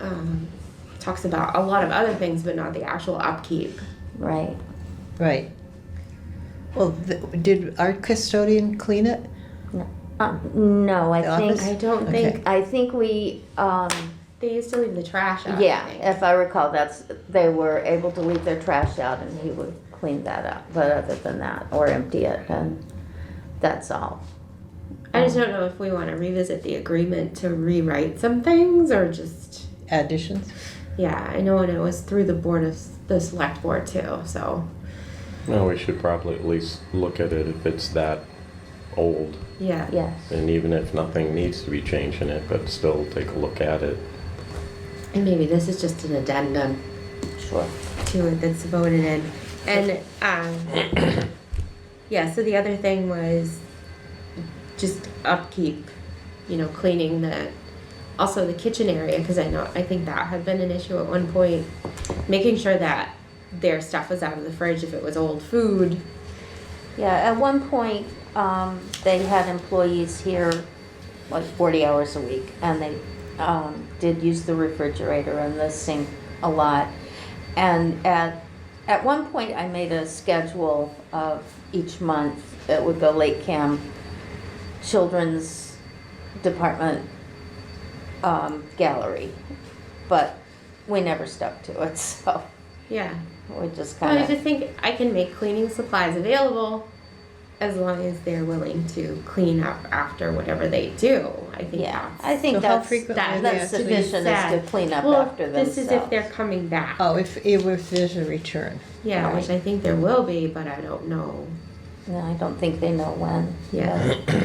um, talks about a lot of other things, but not the actual upkeep. Right. Right. Well, th- did our custodian clean it? Uh, no, I The think office? I don't Okay. think I think we. Um, they used to leave the trash out. I yeah, think. if I recall, that's they were able to leave their trash out, and he would clean that up. But other than that, or empty it, and that's all. I just don't know if we want to revisit the agreement to rewrite some things or just. Additions? Yeah, I know, and it was through the board of the select board too. So Well, we should probably at least look at it if it's that old. yeah, Yes. And even if nothing needs to be changed in it, but still take a look at it. and maybe this is just an addendum Sure. to it that's voted in, and um, yeah. So the other thing was just upkeep, you know, cleaning the, also the kitchen area because I know I think that had been an issue at one point, making sure that their stuff was out of the fridge if it was old food. Yeah, at one point, um, they had employees here like forty hours a week, and they, um, did use the refrigerator and the sink a lot. And at, at one point, I made a schedule of each month, it would go Lake Cam, Children's Department, um, Gallery. But we never stuck to it, so Yeah. we just But I kinda, just think I can make cleaning supplies available as long as they're willing to clean up after whatever they do. I think yeah, that's I So think how that's, frequently that- do they that's have to be- sufficient is Oh, to sad. clean up well, after themselves. this is if they're coming back. Oh, if, if if there's a return. yeah, right. which I think there will be, but I don't know. No, I don't think they know when. Yeah. but,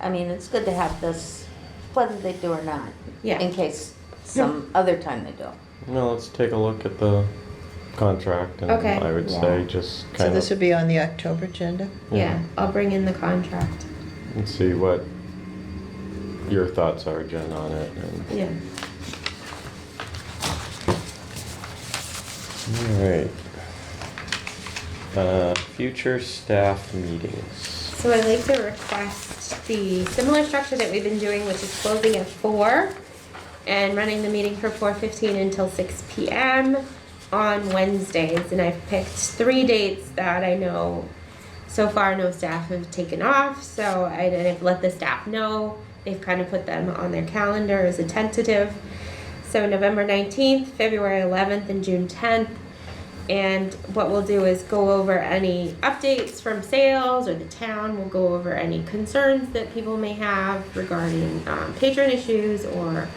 I mean, it's good to have this, whether they do or not, in Yeah. case some other time they do. Well, let's take a look at the contract and Okay. I would Yeah. say just So kind this of would be on the October agenda? Yeah. I'll bring in the contract. and see what your thoughts are, Jen, on it. And, Yeah. all right. Uh, future staff meetings. So I'd like to request the similar structure that we've been doing, which is closing at four and running the meeting from four fifteen until six P M on Wednesdays. And I've picked three dates that I know so far no staff have taken off, so I and I've let the staff know. They've kind of put them on their calendar as a tentative. So November nineteenth, February eleventh, and June tenth. And what we'll do is go over any updates from sales or the town. We'll go over any concerns that people may have regarding um, patron issues or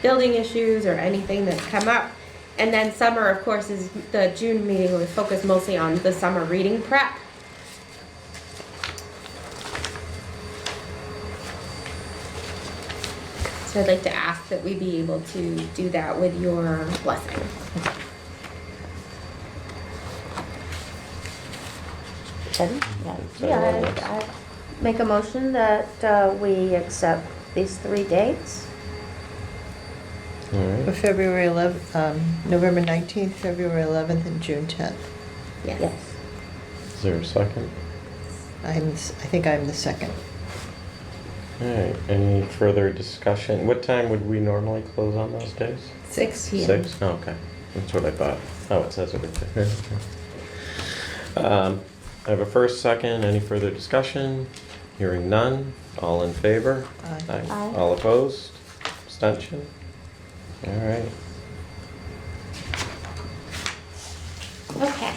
building issues or anything that's come up. And then summer, of course, is the June meeting. We focus mostly on the summer reading prep. So I'd like to ask that we be able to do that with your blessing. Ready? Yeah. Is that all Yeah, it I, I make a motion that uh, we accept these three dates. All For right. February 11th, um, November 19th, February 11th, and June 10th. Yes. Is there a second? I'm, s- I think I'm the second. All right. Any further discussion? What time would we normally close on those days? Six Six? Oh, okay. That's what I thought. Oh, it says it right there. Um, I have a first, second, any further discussion? Hearing none, all in favor? Aye. Aye. All opposed? Abstention? All right. Okay.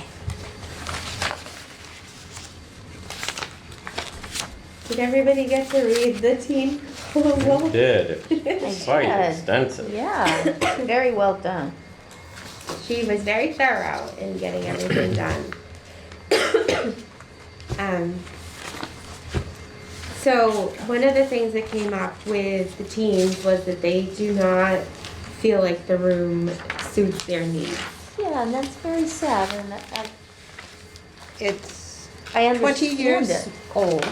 Did everybody get to read the teen We proposal? did. It I was Quite did. extensive. Yeah, very well done. She was very thorough in getting everything done. um, so one of the things that came up with the teens was that they do not feel like the room suits their needs. Yeah, and that's very sad, and I, It's I understand 20 years it. old.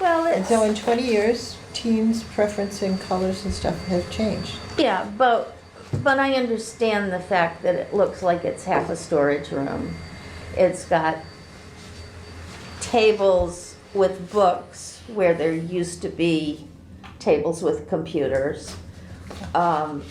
Well, And so it's, in 20 years, teens' preference in colors and stuff have changed. yeah, but, but I understand the fact that it looks like it's half a storage room. It's got tables with books where there used to be tables with computers. Um,